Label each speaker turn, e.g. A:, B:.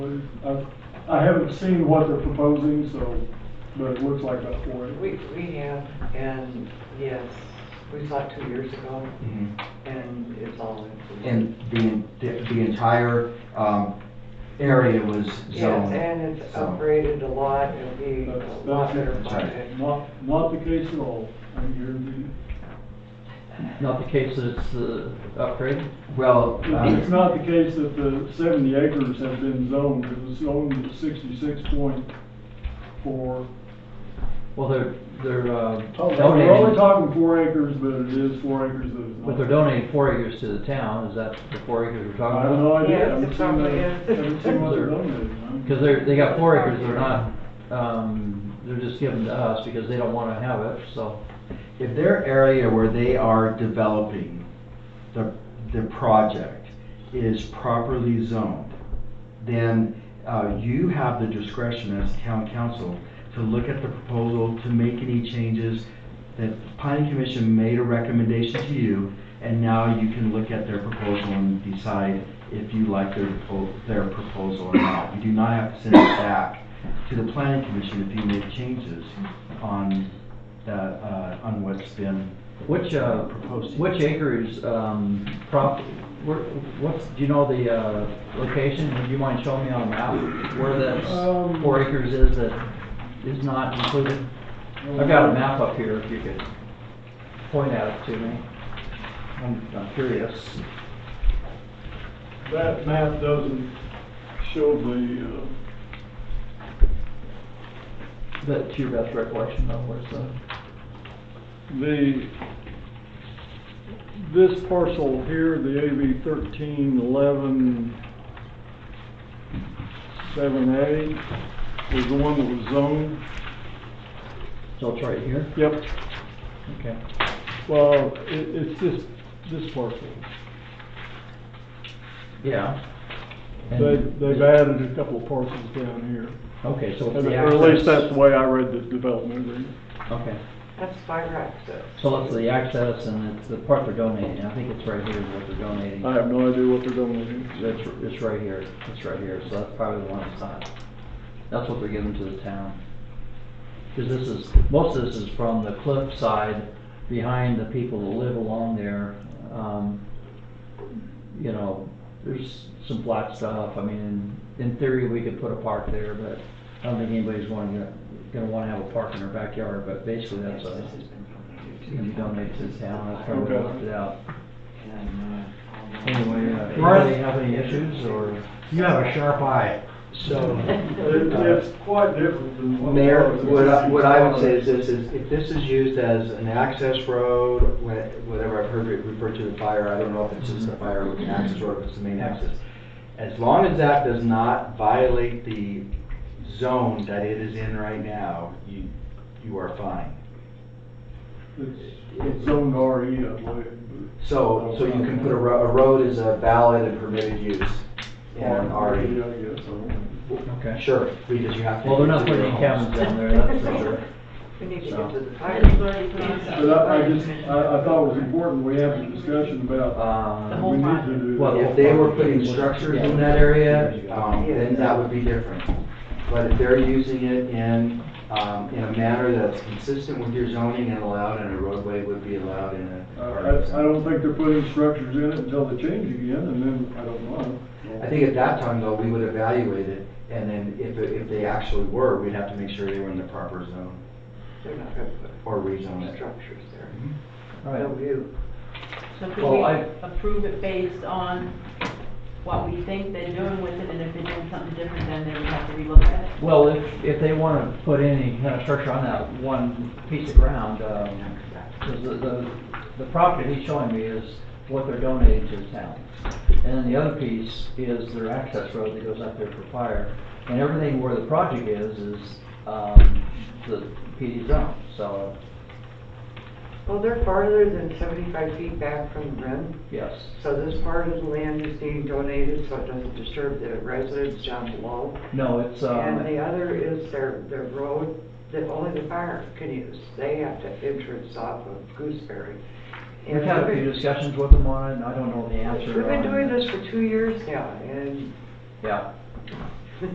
A: I, I haven't seen what they're proposing, so, but it looks like about four acres.
B: We, we have, and yes, we saw it two years ago,
C: Mhm.
B: and it's all included.
C: And the, the entire, um, area was
B: Yes,
C: zoned.
B: and it's
C: so-
B: upgraded a lot, it'll be a
A: That's-
B: lot better
A: that's
C: right.
B: project.
A: Not, not the case at all. I'm here to-
D: Not the case that it's uh, the upgrade?
C: Well, um,
A: It's not the case that the seventy acres have been zoned, it was zoned at sixty-six point four.
D: Well, they're, they're, uh,
A: We're Oh, only
D: donating,
A: talking four acres, but it is four acres that is not.
D: but they're donating four acres to the town, is that the four acres we're
A: I have
D: talking about?
A: no idea.
B: Yes,
A: I haven't
B: it
A: seen
B: probably
A: the-
B: is.
A: Haven't seen what they're donating. I'm-
D: Because they're, they got four acres, they're not, um, they're just giving to us because they don't wanna have it, so.
C: if their area where they are developing the, the project is properly zoned, then, uh, you have the discretion as town council to look at the proposal, to make any changes. The planning commission made a recommendation to you, and now you can look at their proposal and decide if you like their, propo- their proposal or not. You do not have to send it back to the planning commission if you make changes on that, uh, on what's been,
D: Which, uh,
C: Proposed.
D: which acres, um, prop, where, what's, do you know the, uh, location? Would you mind showing me on a map where that
A: Um,
D: four acres is that is not included? I've got a map up here, if you could point at it to me. I'm I'm curious.
A: That map doesn't show the, uh,
D: But to your best recollection of where's the,
A: The, this parcel here, the AV thirteen eleven seven A, was the one that was zoned.
D: so it's right here?
A: Yep.
D: Okay.
A: Well, it, it's this, this parcel.
D: Yeah. And-
A: They, they've added a couple of parcels down here.
D: Okay, so it's
A: And-
D: the
A: Or at least that's
D: access.
A: the way I read the development agreement.
D: Okay,
B: That's fire access.
D: so it's the access and it's the part they're donating. I think it's right here is what they're donating.
A: I have no idea what they're doing.
D: It's, it's right here, it's right here, so that's probably the one that's not, that's what they're giving to the town. Cause this is, most of this is from the cliff side, behind the people that live along there, um, you know, there's some flat stuff, I mean, in, in theory, we could put a park there, but I don't think anybody's gonna, gonna wanna have a park in their backyard, but basically that's a, gonna be donated to the town, that's probably
A: Okay.
D: left it out. Anyway,
B: Anyway,
D: uh, anybody have any issues, or?
E: You have a sharp eye.
C: So,
A: It- It's quite different than what.
C: Mayor, what I, what I would say is this, is if this is used as an access road, wha- whatever I've heard it referred to as fire, I don't know if it's just a fire or an access road, if it's the main access. As long as that does not violate the zone that it is in right now, you, you are fine.
A: It's it's zoned RE, I believe.
C: So, so you can put a ro- a road as a valid and permitted use in an
A: I guess,
C: RE.
A: I don't know.
D: Okay.
C: Sure, because you have to.
D: Well, they're not putting any cabins down there, that's for sure.
B: We need to
D: So.
B: get to the fire.
A: But I, I just, I, I thought it was important, we have a discussion about,
C: Um,
D: Uh,
A: we need to do
D: Well,
A: that.
C: If they were putting structures in that area, um, then that would be different. But if they're using it in, um, in a manner that's consistent with your zoning and allowed, and a roadway would be allowed in a.
A: Uh, I, I- I don't think they're putting structures in it until they change again, and then, I don't know.
C: I think at that time, though, we would evaluate it, and then if, it- if they actually were, we'd have to make sure they were in the proper zone
B: They're not gonna
C: or
B: put
C: rezone it.
B: structures there.
D: all right.
B: No view.
F: So could
D: Well,
F: we
D: I-
F: approve it based on what we think they're doing with it, and if they're doing something different, then they would have to relook at it?
D: Well, if, if they want to put any kind of structure on that one piece of ground, um, 'cause the, the, the property he's showing me is what they're donating to the town. And then the other piece is their access road that goes up there for fire. And everything where the project is, is, um, the PD zone, so,
B: Well, they're farther than seventy-five feet back from the rim,
D: yes.
B: so this part of the land is being donated so it doesn't disturb the residents down below.
D: No, it's,
B: And the
D: um,
B: other is their, their road that only the fire can use. They have to entrance off of Gooseberry.
D: we've
B: And
D: had a
B: we've
D: few
B: been-
D: discussions with them on it, and I don't know the answer.
B: We've been
D: on-
B: doing this for two years now, and
D: Yeah,